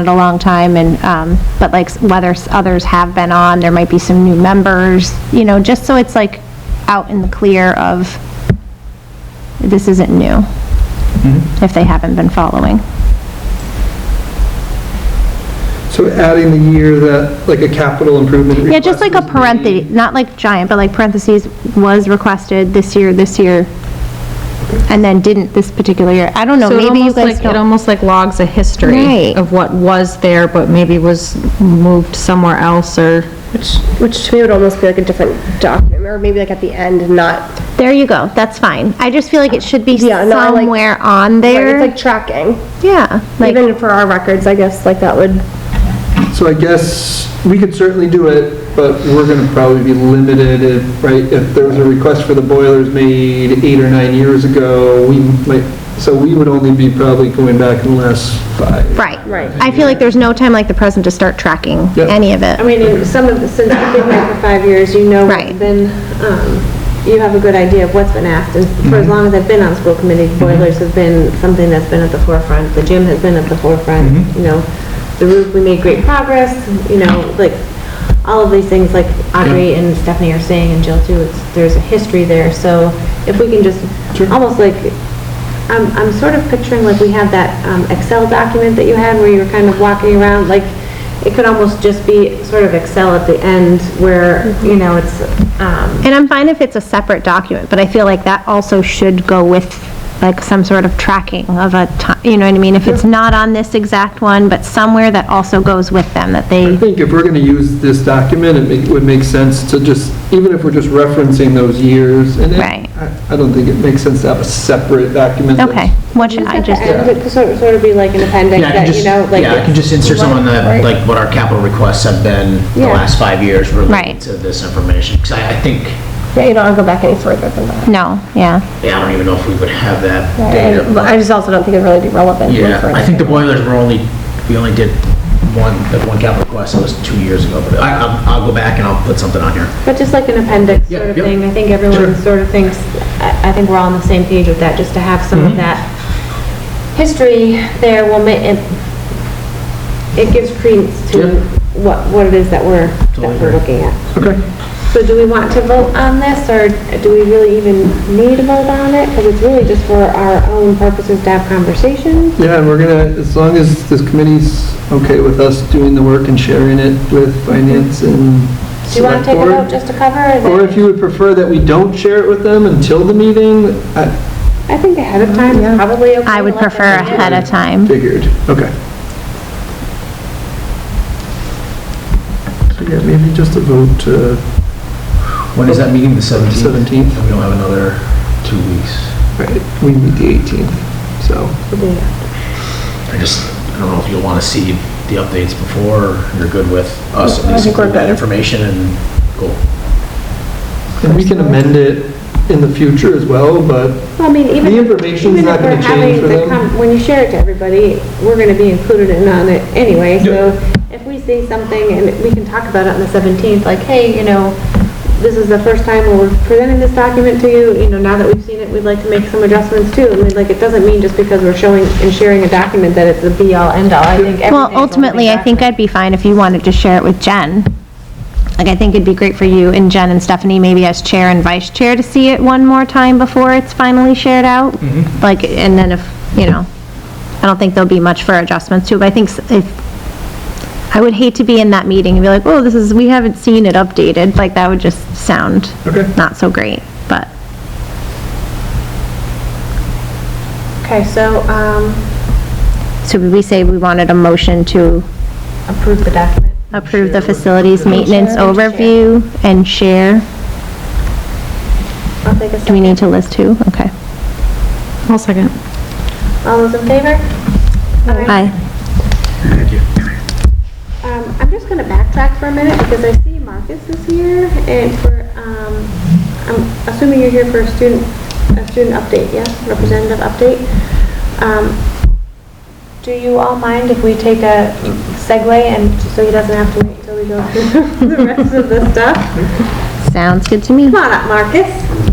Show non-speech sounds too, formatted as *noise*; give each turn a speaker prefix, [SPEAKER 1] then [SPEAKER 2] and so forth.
[SPEAKER 1] it a long time, and, um, but like, whether s- others have been on, there might be some new members, you know, just so it's like out in the clear of, this isn't new, if they haven't been following.
[SPEAKER 2] So adding the year that, like a capital improvement
[SPEAKER 1] Yeah, just like
[SPEAKER 2] request
[SPEAKER 1] a
[SPEAKER 2] was
[SPEAKER 1] parenthesis,
[SPEAKER 2] made.
[SPEAKER 1] not like giant, but like parentheses, was requested this year, this year, and then didn't this particular year. I don't know,
[SPEAKER 3] So it
[SPEAKER 1] maybe you
[SPEAKER 3] almost
[SPEAKER 1] guys
[SPEAKER 3] like, it
[SPEAKER 1] don't.
[SPEAKER 3] almost like logs a history
[SPEAKER 1] Right.
[SPEAKER 3] of what was there, but maybe was moved somewhere else or,
[SPEAKER 4] Which, which to me would almost be like a different document, or maybe like at the end, not,
[SPEAKER 1] There you go, that's fine. I just feel like it should be
[SPEAKER 4] Yeah, no, I like-
[SPEAKER 1] somewhere on
[SPEAKER 4] it's
[SPEAKER 1] there.
[SPEAKER 4] like tracking.
[SPEAKER 1] Yeah, like,
[SPEAKER 4] Even for our records, I guess, like that would,
[SPEAKER 2] So I guess, we could certainly do it, but we're going to probably be limited if, right, if there was a request for the boilers made eight or nine years ago, we might, so we would only be probably going back in the last five.
[SPEAKER 1] right.
[SPEAKER 4] Right.
[SPEAKER 1] I feel like there's no time like the present to start tracking
[SPEAKER 2] Yep.
[SPEAKER 1] any of
[SPEAKER 5] I
[SPEAKER 1] it.
[SPEAKER 5] mean, you- some of, the- since you've been here for five years, you know what's
[SPEAKER 1] Right.
[SPEAKER 5] been, um, you have a good idea of what's been asked, and for
[SPEAKER 1] Mm-hmm.
[SPEAKER 5] as long as I've been on school committee, boilers have been something that's been at the forefront, the gym has been at the forefront,
[SPEAKER 1] Mm-hmm.
[SPEAKER 5] you know, the roof, we made great progress, you know, like, all of these things, like Audrey and Stephanie are saying, and Jill too, it's, there's a history there, so if we can just, almost like, I'm, Um, I'm sort of picturing like we had that um, Excel document that you had where you were kind of walking around, like, it could almost just be sort of Excel at the end where, you know, it's, um,
[SPEAKER 1] And I'm fine if it's a separate document, but I feel like that also should go with like some sort of tracking of a time, you know what I mean? If it's not on this exact one, but somewhere that also goes with them, that they.
[SPEAKER 2] I think if we're going to use this document, it make- would make sense to just, even if we're just referencing those years, and it-
[SPEAKER 1] Right.
[SPEAKER 2] I I don't think it makes sense to have a separate document. that's-
[SPEAKER 1] Okay, what should I
[SPEAKER 5] at the
[SPEAKER 1] just,
[SPEAKER 5] end, it could sort of, sort of be like an appendix
[SPEAKER 6] Yeah, I can
[SPEAKER 5] that, you
[SPEAKER 6] just,
[SPEAKER 5] know, like.
[SPEAKER 6] yeah, I can just insert someone that, like, what our capital requests have been the
[SPEAKER 5] Yeah.
[SPEAKER 6] last five years
[SPEAKER 1] Right.
[SPEAKER 6] related to this information. Because I, I think,
[SPEAKER 4] yeah, you don't have to go back any further than that.
[SPEAKER 1] no, yeah.
[SPEAKER 6] yeah, I don't even know if we would have that data.
[SPEAKER 4] And I just also don't think it'd really be relevant.
[SPEAKER 6] Yeah,
[SPEAKER 4] for-
[SPEAKER 6] I think the boilers were only, we only did one, that one capital request, that was two years ago. But I, I'll- I'll go back and I'll put something on here.
[SPEAKER 5] But just like an appendix
[SPEAKER 6] Yeah,
[SPEAKER 5] sort of
[SPEAKER 6] yep.
[SPEAKER 5] thing, I think everyone sort of thinks, I, I think we're all on the same page with that, just to have some of that history there will make, it, it gives credence
[SPEAKER 6] Yeah.
[SPEAKER 5] to what, what it is that we're,
[SPEAKER 6] Totally
[SPEAKER 5] that we're
[SPEAKER 6] agree.
[SPEAKER 5] looking at.
[SPEAKER 2] Okay.
[SPEAKER 5] So do we want to vote on this, or do we really even need to vote on it? Because it's really just for our own purposes to have conversations.
[SPEAKER 2] Yeah, and we're gonna, as long as this committee's okay with us doing the work and sharing it with finance and
[SPEAKER 5] Do you want
[SPEAKER 2] select
[SPEAKER 5] to take it out
[SPEAKER 2] board.
[SPEAKER 5] just to cover? it?
[SPEAKER 2] Or if you would prefer that we don't share it with them until the meeting, I
[SPEAKER 5] I think ahead of time, is probably okay.
[SPEAKER 1] I would
[SPEAKER 5] to let them
[SPEAKER 1] prefer
[SPEAKER 5] know.
[SPEAKER 1] ahead of time.
[SPEAKER 2] figured, okay. So yeah, maybe just a vote to
[SPEAKER 6] When is that meeting, the 17th?
[SPEAKER 2] 17th.
[SPEAKER 6] We don't have another two weeks.
[SPEAKER 2] Right, we meet the 18th, so.
[SPEAKER 6] I just, I don't know if you'll want to see the updates before, or you're good with us at
[SPEAKER 4] I
[SPEAKER 6] least
[SPEAKER 4] think we're
[SPEAKER 6] include that
[SPEAKER 4] good.
[SPEAKER 6] information and go.
[SPEAKER 2] And we can amend it in the future as well, but
[SPEAKER 5] Well, I mean, even.
[SPEAKER 2] The information's
[SPEAKER 5] even
[SPEAKER 2] not
[SPEAKER 5] if we're
[SPEAKER 2] gonna change
[SPEAKER 5] having
[SPEAKER 2] for
[SPEAKER 5] the
[SPEAKER 2] them.
[SPEAKER 5] com- When you share it to everybody, we're gonna be included in on it anyway, so if we see something and we can talk about it on the seventeenth, like, hey, you know, this is the first time we're presenting this document to you, you know, now that we've seen it, we'd like to make some adjustments too. I mean, like, it doesn't mean just because we're showing and sharing a document that it's the be-all, end-all, I think everything's.
[SPEAKER 1] Well,
[SPEAKER 5] a
[SPEAKER 1] ultimately, I think
[SPEAKER 5] document.
[SPEAKER 1] I'd be fine if you wanted to share it with Jen. Like, I think it'd be great for you and Jen and Stephanie, maybe as chair and vice chair, to see it one more time before it's finally shared out. Like, and then if, you know, I don't think there'll be much for adjustments to, but I think s- if, I would hate to be in that meeting and be like, oh, this is, we haven't seen it updated, like, that would just sound
[SPEAKER 2] Okay.
[SPEAKER 1] not so great, but.
[SPEAKER 5] Okay, so, um,
[SPEAKER 1] So we say we wanted a motion to
[SPEAKER 5] approve the document.
[SPEAKER 1] approve the facilities maintenance overview and share.
[SPEAKER 5] I'll take
[SPEAKER 1] Do we
[SPEAKER 5] a second.
[SPEAKER 1] need to list who? Okay.
[SPEAKER 3] I'll second.
[SPEAKER 5] All those in favor?
[SPEAKER 1] Aye.
[SPEAKER 5] Aye. Um, I'm just gonna backtrack for a minute because I see Marcus is here and for, um, I'm assuming you're here for a student, a student update, yes, representative update. Um, do you all mind if we take a segue and, so he doesn't have to *laughs* wait until we go through the rest of the stuff?
[SPEAKER 1] Sounds good to me.
[SPEAKER 5] Come on up, Marcus.